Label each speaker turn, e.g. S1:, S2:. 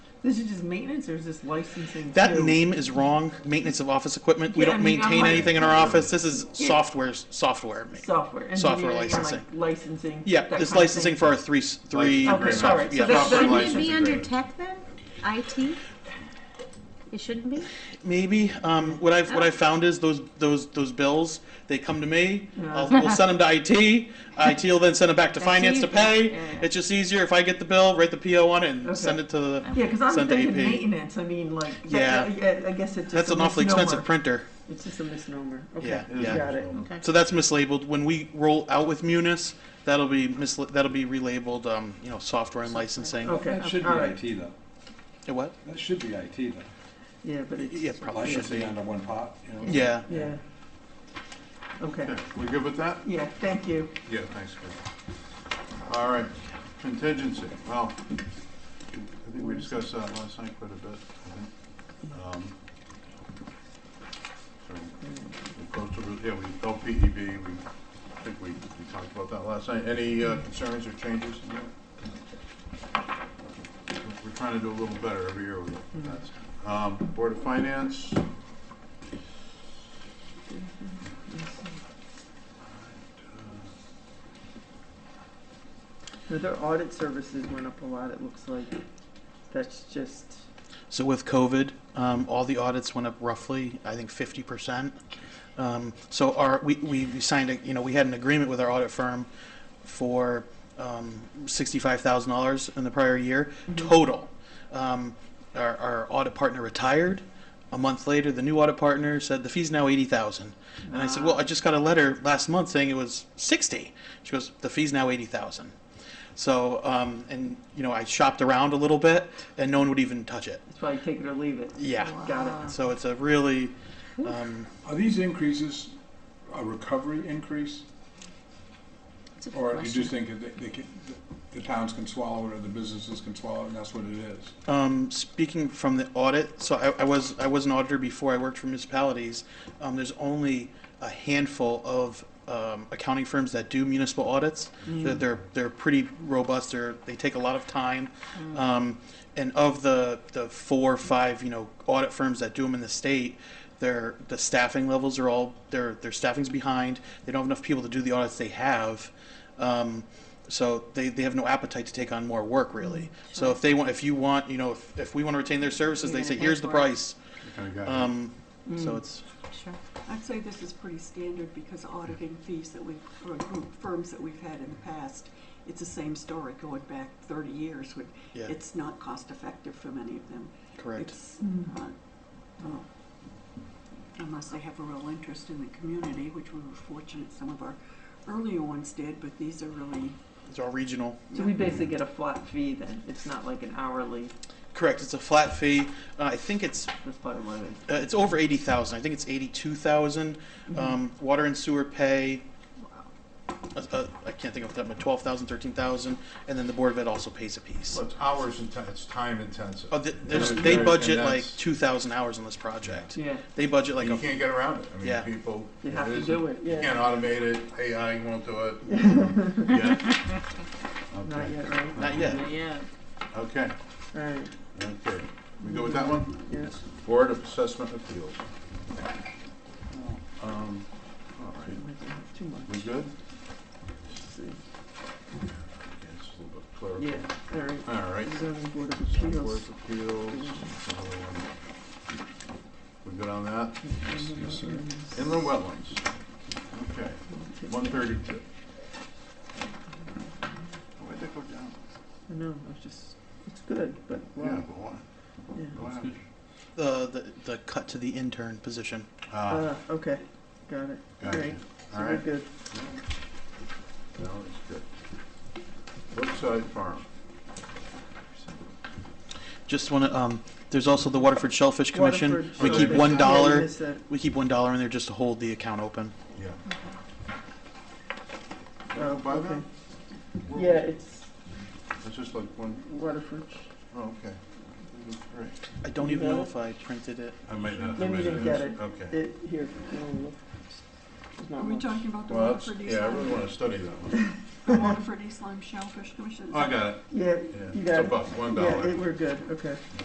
S1: This is just maintenance, or is this licensing?
S2: That
S1: too?
S2: name is wrong. Maintenance of office equipment. We
S1: Yeah, I
S2: don't
S1: mean, I'm
S2: maintain
S1: like-
S2: anything in our office. This is
S1: Yeah.
S2: software, software. ma-
S1: software, engineering,
S2: Software
S1: like
S2: licensing.
S1: licensing.
S2: Yeah,
S1: that
S2: this
S1: kind of
S2: licensing
S1: thing.
S2: for our three, s- three.
S1: Okay,
S2: soft-
S1: all right, so
S2: yeah.
S1: that's- Software
S2: software
S3: Shouldn't it
S2: license.
S3: be
S4: license
S3: under
S4: agreement.
S3: tech then? IT? It shouldn't be?
S2: Maybe. Um, what I've what I found is those those those bills. They come to me.
S1: Yeah.
S2: I'll, we'll send them to IT. IT will then send them back to finance to
S3: easy.
S2: pay.
S3: Yeah, yeah.
S2: It's just easier if I get the bill, write the PO on it, and
S1: Okay.
S2: send it to the.
S1: Yeah, because I'm
S2: Send to
S1: thinking
S2: AP.
S1: maintenance. I mean, like,
S2: Yeah.
S1: that, yeah. I, I guess it's just
S2: That's
S1: a
S2: an awfully
S1: misnomer.
S2: expensive printer.
S1: It's just a misnomer. Okay,
S2: Yeah, yeah.
S1: got it.
S3: Okay.
S2: So that's mislabeled. When we roll out with Munis, that'll be misla- that'll be relabeled. Um, you know, software and licensing.
S1: Okay,
S4: That should
S1: all right.
S4: be IT though.
S1: Oh.
S2: Yeah, What?
S4: That should be IT though.
S1: Yeah, but it's
S2: Yeah, probably should
S4: Licensing
S2: be.
S4: under one pot, you know?
S2: Yeah.
S1: yeah. Okay.
S5: Okay, we good with that?
S1: Yeah. Thank you.
S5: Yeah, thanks, Chris. All right, contingency, well, I think we discussed that last night quite a bit, I think. Um, So, we close to, yeah, we, LPEB, we, I think we, we talked about that last night. Any uh, concerns or changes? in that? We're trying to do a little better every year with
S1: Mm-hmm.
S5: that. Um, Board of Finance,
S1: No, their audit services went up a lot. It looks like that's just.
S2: So with COVID, um, all the audits went up roughly, I think, fifty percent. Um, so our we, we, we signed a you know we had an agreement with our audit firm for um, sixty five thousand dollars in the prior year total. Um, our, our audit partner retired. A month later, the new audit partner said the fee's now eighty thousand, and I said, "Well, I just got a letter last month saying it was sixty. She goes, "The fee's now eighty thousand. So, um, and you know, I shopped around a little bit, and no one would even touch it.
S1: It's probably take it or leave it.
S2: Yeah.
S1: Got it.
S2: So it's a really, um,
S6: Are these increases a recovery increase?
S3: It's a good
S6: Or you
S3: question.
S6: just think that they- they can, the towns can swallow it or the businesses can swallow it and that's what it is?
S2: um, speaking from the audit, so I, I was I was an auditor before I worked for municipalities. Um, there's only a handful of um, accounting firms that do municipal audits. They're, they're they're pretty robust. They're they take a lot of time. Um, and of the the four or five you know audit firms that do them in the state, their the staffing levels are all their their staffing's behind. They don't have enough people to do the audits they have. Um, so they, they have no appetite to take on more work really. So if they want if you want you know if, if we want to retain their services, they
S3: You're gonna
S2: say
S3: pay
S2: here's the
S3: for it." Mm.
S2: price.
S5: kind of got it.
S2: Um,
S1: Mm.
S2: So it's
S3: Sure.
S7: I'd say this is pretty standard because auditing fees that we've, or group firms that we've had in the past, it's the same story going back thirty years. Would
S2: Yeah.
S7: It's not cost effective for many of them.
S2: correct.
S7: It's, uh, well, Unless they have a real interest in the community, which we were fortunate some of our earlier ones did, but these are really,
S2: It's all regional.
S1: So we basically get a flat fee then. It's not like an hourly.
S2: Correct. It's a flat fee. Uh, I think it's
S1: That's probably what it is.
S2: uh, it's over eighty thousand. I think it's eighty two thousand.
S3: Mm-hmm.
S2: Um, water and sewer pay. Uh, uh, I can't think of that, but 12,000, 13,000, and then the Board of Ed also pays a piece.
S5: Well, it's hours intensive, it's time intensive.
S2: Oh, th- there's,
S5: Yeah,
S2: they
S5: and
S2: budget like
S5: that's-
S2: 2,000 hours on this project.
S1: Yeah.
S2: They budget like
S5: You
S2: a
S5: can't get around it. I
S2: Yeah.
S5: mean, people.
S1: You have to
S5: is-
S1: do it,
S5: You
S1: yeah.
S5: can't automate it, AI won't do it. Yeah.
S1: Not
S5: Okay.
S1: yet, right?
S2: Not yet.
S3: Yeah.
S5: Okay,
S1: All right.
S5: okay. We go with that one?
S1: Yes.
S5: Board of Assessment Appeals.
S1: Oh.
S5: Um, all right,
S1: Too
S5: we
S1: much.
S5: good?
S1: Let's see.
S5: Yeah, It's a little bit clerical.
S1: Yeah. All right.
S5: All right.
S1: Zoning Board of
S5: Board
S1: Appeals.
S5: of Appeals, another one. We good on that?
S6: Yes, sir.
S5: Inland Wetlands. Okay, one thirty-two. Why'd they go down?
S1: I know, I was just, it's good, but
S5: Yeah,
S1: wow.
S5: but why?
S1: Yeah.
S5: What happened?
S2: the, the the cut to the intern position.
S5: Ah,
S1: Uh, okay, got it. All
S5: Gotcha.
S1: right, so
S5: all
S1: we're
S5: right.
S1: good.
S5: No, it's good. Woodside Farm.
S2: Just want to. Um, there's also the Waterford Shellfish Commission.
S1: Waterford
S2: we keep
S1: Shellfish.
S2: one
S1: Yeah,
S2: dollar.
S1: you missed that.
S2: we keep one dollar in there just to hold the account open.
S5: Yeah.
S1: Oh,
S5: Buy that?
S1: okay.
S5: Uh, Where
S1: Yeah,
S5: was it?
S1: it's
S5: It's just like one,
S1: Waterford.
S5: oh, okay. Great.
S2: I don't
S1: You
S2: even
S1: got
S2: know
S1: it?
S2: if I printed it.
S5: I might not.
S1: Maybe you didn't get it.
S5: Okay.
S1: It, here, you wanna look? There's
S7: are
S1: not
S7: we
S1: much.
S7: talking about the
S5: Well, that's,
S7: Waterford East
S5: yeah, I really
S7: Lyme?
S5: want to study that one.
S7: the Waterford East Lyme Shellfish Commission?
S5: Oh, I got it.
S1: Yeah,
S5: Yeah.
S1: you
S5: It's
S1: got
S5: a
S1: it.
S5: buck, one
S1: Yeah,
S5: dollar.
S1: it- we're good, okay.